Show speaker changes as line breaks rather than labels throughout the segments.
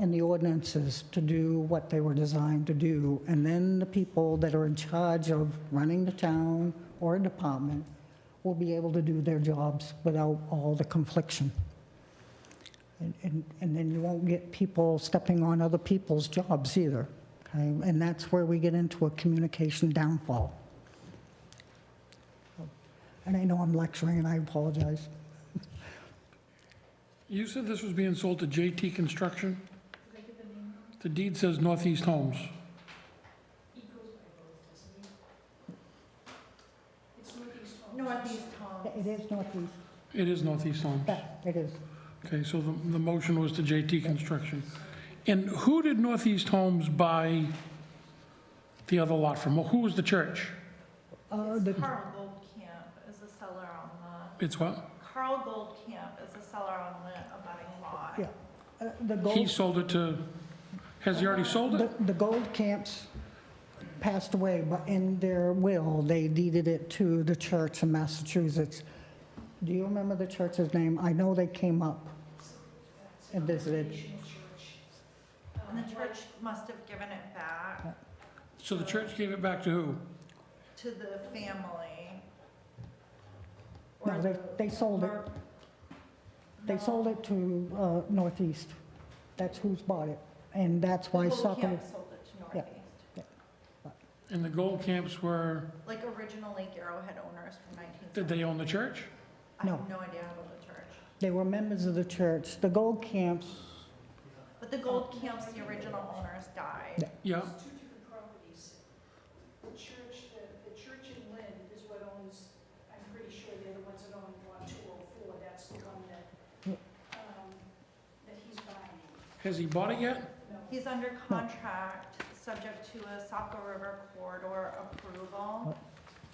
in the ordinances to do what they were designed to do. And then the people that are in charge of running the town or a department will be able to do their jobs without all the confliction. And- And, and then you won't get people stepping on other people's jobs either, okay? And that's where we get into a communication downfall. And I know I'm lecturing, and I apologize.
You said this was being sold to JT Construction? The deed says Northeast Homes.
Northeast Home.
It is Northeast,
It is Northeast Homes.
yeah, it is.
Okay, so the, the motion was to JT Construction. And who did Northeast Homes buy the other lot from? Who was the church?
Uh,
It's
the-
Carl Goldcamp is the seller on the,
It's what?
Carl Goldcamp is the seller on the abutting lot.
Yeah, uh, The
He
gold,
sold it to, has he already sold it?
the the gold camps passed away, but in their will, they deeded it to the church in Massachusetts. Do you remember the church's name? I know they came up and visited.
And the church must have given it back
So the church gave it back to who?
to the family.
No,
Or
they,
the-
they sold it,
or-
they
No.
sold it to uh, Northeast. That's who's bought it, and that's why
The
Suffolk,
Goldcamp sold it to
Yeah.
Northeast.
And the gold camps were,
Like originally Garrowhead owners from nineteen
did
seventy.
they own the church?
I
No.
have no idea about the church.
they were members of the church. The gold camps,
But the Goldcamps, the original owners died.
Yeah,
two different properties. The church, the, the church in Lynn is what owns, I'm pretty sure they're the ones that own lot two oh four, that's the one that, um, that he's buying.
has he bought it yet?
He's under contract, subject to a Saco River corridor approval.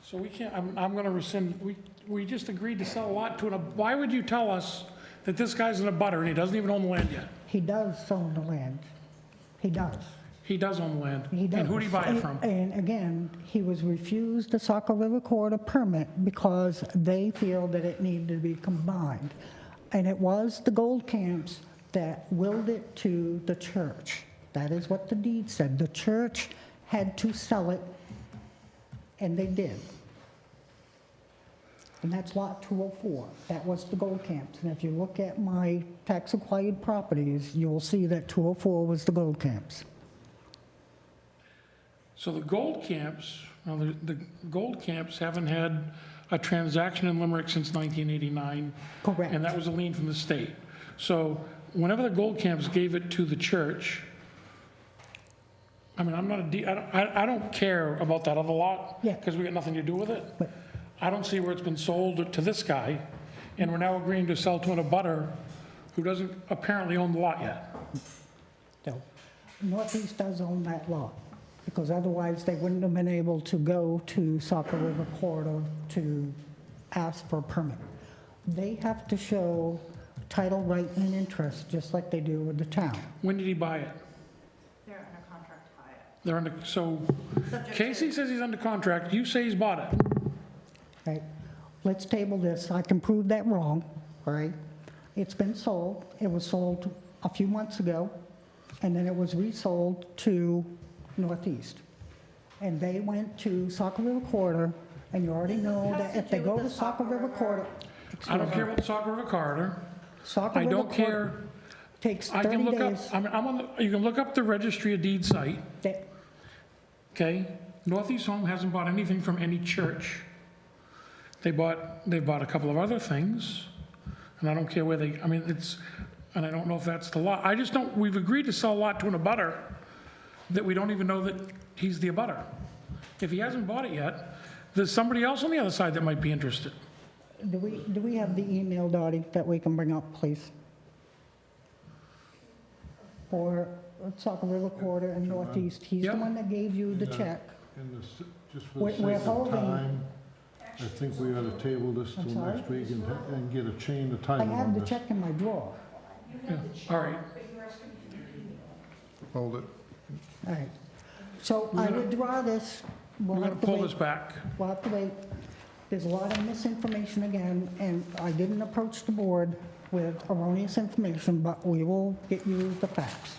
So we can't, I'm, I'm gonna rescind, we, we just agreed to sell a lot to an, ab- why would you tell us that this guy's in a butter and he doesn't even own the land yet?
he does own the land. He does.
He does own the land.
He does.
And who did he buy it from?
And and again, he was refused the Saco River Corridor permit because they feel that it needed to be combined. And it was the Gold Camps that willed it to the church. That is what the deed said. The church had to sell it, and they did. And that's Lot 204. That was the Gold Camps. And if you look at my tax-acquired properties, you'll see that 204 was the Gold Camps.
So the gold camps, well, the, the gold camps haven't had a transaction in Limerick since 1989,
Correct.
and that was a lien from the state. So whenever the gold camps gave it to the church, I mean, I'm not a, de- I don't, I I don't care about that other lot.
Yeah.
Because we got nothing to do with it.
But-
I don't see where it's been sold to this guy, and we're now agreeing to sell to an abutter who doesn't apparently own the lot yet.
No. Northeast does own that lot, because otherwise they wouldn't have been able to go to Saco River Corridor to ask for a permit. They have to show title right and interest, just like they do with the town.
When did he buy it?
They're under contract to buy it.
They're under, so
Subject to-
Casey says he's under contract, you say he's bought it.
right? Let's table this, I can prove that wrong, all right? It's been sold, it was sold a few months ago, and then it was resold to Northeast. And they went to Saco River Corridor, and you already
This has
know
to
that if they
do
go
with
to
the
Saco
Saco
River
River.
Corridor.
I don't care about the Saco River corridor.
Saco
I
River
don't
Corridor
care,
Takes
I can
30
look up,
days.
I mean, I'm on, the- you can look up the registry of deed site,
That-
okay? Northeast Home hasn't bought anything from any church. They bought, they've bought a couple of other things, and I don't care where they, I mean, it's, and I don't know if that's the lot. I just don't, we've agreed to sell a lot to an abutter that we don't even know that he's the abutter. If he hasn't bought it yet, there's somebody else on the other side that might be interested.
Do we, do we have the email, Dottie, that we can bring up, please? For Saco River Corridor and Northeast, he's the
Yeah.
one that gave you the
Yeah.
check.
In the, s- just for
We're-
the
we're
sake of
holding-
time, I think we ought to table this
I'm
till next
sorry?
week and, and get a chain of
I
title
have
on
the
this.
check in my drawer.
Yeah, All right,
Hold it.
All right. So I
gonna-
withdraw this. We'll
we're gonna
have to
pull
wait-
this back.
We'll have to wait. There's a lot of misinformation again, and I didn't approach the board with erroneous information, but we will get you the facts.